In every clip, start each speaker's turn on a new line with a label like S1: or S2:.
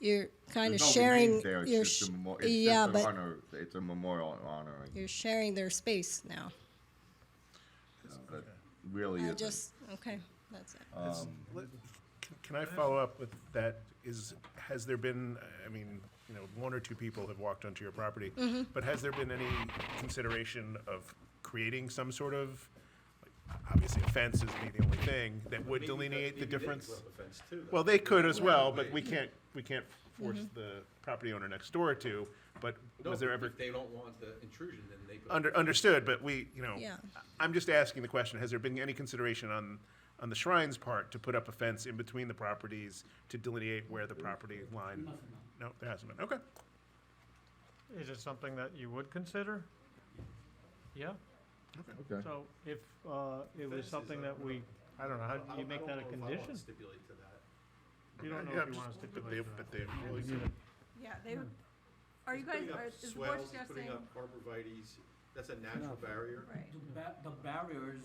S1: You're kind of
S2: There's no
S1: sharing.
S2: remains there. It's
S1: you're
S2: just a
S1: sh-
S2: memo- it's
S1: yeah,
S2: just
S1: but
S2: an honor. It's a memorial honoring.
S1: you're sharing their space now.
S2: That really
S1: I
S2: isn't.
S1: just okay. That's it.
S3: Um,
S4: It's- let- c- Can I follow up with that? Is, has there been, I mean, you know, one or two people have walked onto your property, but has there been any consideration of creating some sort of, like, obviously a fence isn't the only thing, that would delineate the difference? Well, they could as well, but we can't, we can't force the property owner next door to, but
S3: No,
S4: was there
S3: if-
S4: ever
S3: If they don't want the intrusion, then they. put-
S4: Under, understood, but we, you know,
S1: Yeah.
S4: I'm just asking the question, has there been any consideration on, on the shrines part to put up a fence in between the properties to delineate where the property line? No, there hasn't been, okay.
S5: Is it something that you would consider? Yeah,
S2: okay.
S5: so if, uh, it was something that we, I don't know, how
S3: I
S5: do you
S3: don't- I
S5: make
S3: don't
S5: that a
S3: know if I wanna
S5: condition?
S3: Stipulate to that.
S5: You don't know
S4: Yeah,
S5: if you
S4: just-
S5: wanna
S4: But they,
S5: stipulate that.
S4: but they,
S6: Yeah, they would, are you guys,
S3: Putting up
S6: are- is the board
S3: swales, he's
S6: suggesting,
S3: Putting up arborvitae's, that's a natural barrier.
S6: right,
S7: The ba- the barriers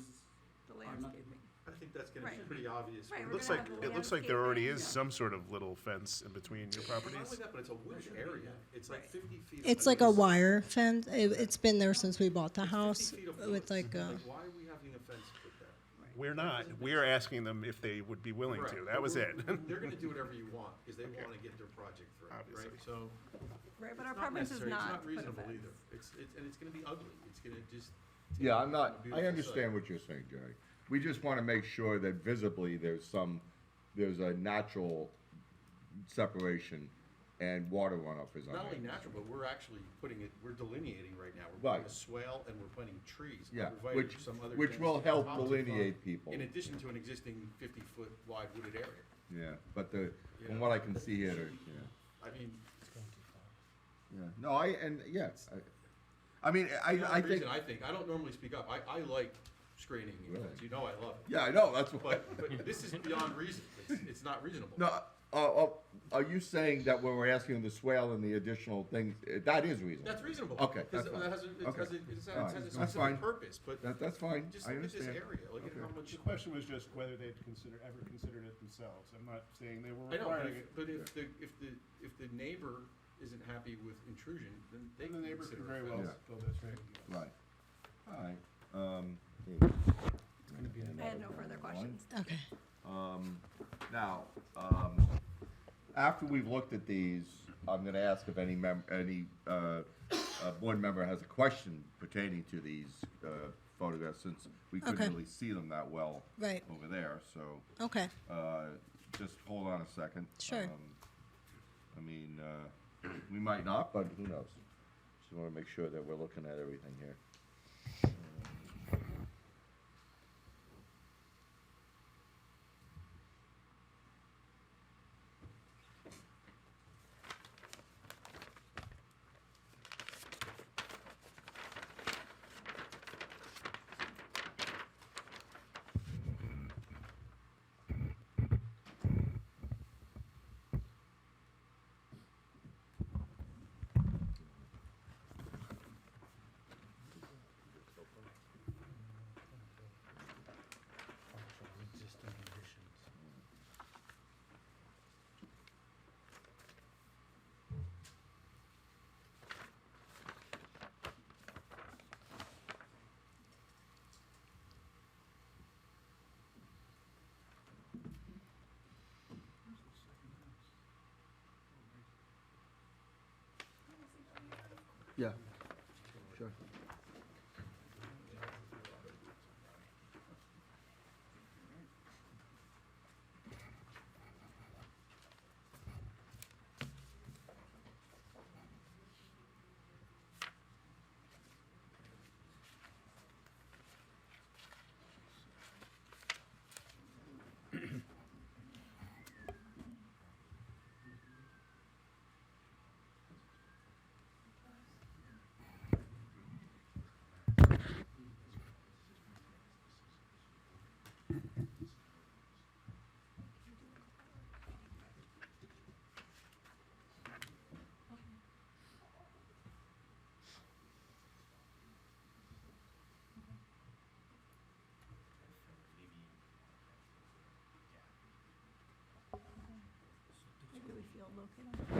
S6: the
S7: are not,
S6: landscaping?
S3: I think that's gonna be
S6: Right.
S3: pretty obvious. when
S6: Right,
S4: it
S6: we're
S3: you-
S4: looks
S6: gonna
S4: like,
S6: have
S4: it looks like there already is some sort of little fence in between your
S3: Not only
S4: properties.
S3: that, but it's a wooded area. It's like
S6: Right.
S3: fifty feet. of
S1: It's like a
S3: woods.
S1: wire fence. It, it's been there since we bought the
S3: It's 50
S1: house.
S3: feet of woods.
S1: With like uh, a,
S3: Why are we having a fence put there?
S4: We're not, we're asking them if they would be willing to,
S3: Correct.
S4: that was it.
S3: They're gonna do whatever you want, because they wanna get their project through,
S4: Obviously.
S3: right? So.
S6: Right, but
S3: it's
S6: our
S3: not
S6: preference is
S3: necessary. It's
S6: not to put a
S3: reasonable
S6: fence.
S3: either. It's, it's, and it's gonna be ugly. It's gonna just. take
S2: Yeah,
S3: away
S2: I'm not,
S3: from a
S2: I
S3: beautiful
S2: understand
S3: site.
S2: what you're saying, Jerry. We just want to make sure that visibly there's some, there's a natural separation and water runoff is on
S3: Not only
S2: it.
S3: natural, but we're actually putting it, we're delineating right now. We're putting
S2: Right.
S3: a swale and we're planting trees.
S2: Yeah,
S3: arborvitae,
S2: which-
S3: some other
S2: which
S3: things
S2: will
S3: on
S2: help
S3: top of-
S2: delineate people.
S3: In addition to an existing fifty-foot wide wooded area.
S2: Yeah, but the, from what I can see here, there- yeah,
S3: I mean,
S2: yeah. No, I, and, yeah, I, I mean, I,
S3: the
S2: I
S3: reason
S2: think,
S3: I think, I don't normally speak up. I, I like screening, and
S2: Really?
S3: fence. you know I love it.
S2: yeah, I know, that's what.
S3: But, but this is beyond reason. It's, it's not reasonable.
S2: No, uh, uh, are you saying that when we're asking the swale and the additional things, uh, that is reasonable?
S3: That's reasonable.
S2: Okay,
S3: 'cause
S2: that's
S3: it
S2: fine.
S3: has a- It
S2: Okay.
S3: has a, it has a-
S2: All right,
S3: it has
S2: that's
S3: a
S2: fine.
S3: specific purpose, but
S2: That, that's fine,
S3: just
S2: I
S3: look at this
S2: understand.
S3: area, look at how much.
S4: The question was just whether they'd consider, ever considered it themselves, I'm not saying they were
S3: I know, but
S4: requiring it.
S3: if, but if the, if the, if the neighbor isn't happy with intrusion, then they
S4: And the
S3: can
S4: neighbor
S3: consider
S4: could
S3: it.
S4: very well
S2: Yeah.
S4: build this right.
S2: Right, alright, um.
S6: I had no further questions.
S1: okay.
S2: Now, um, after we've looked at these, I'm gonna ask if any mem- any, uh, uh, board member has a question pertaining to these, uh, photographs, since we
S1: Okay.
S2: couldn't really see them that well.
S1: Right.
S2: Over there, so,
S1: Okay.
S2: uh, just hold on a second.
S1: Sure.
S2: Um, I mean, uh, we might not, but who knows? Just wanna make sure that we're looking at everything here.
S7: existing conditions.
S2: Yeah, sure.
S6: field located?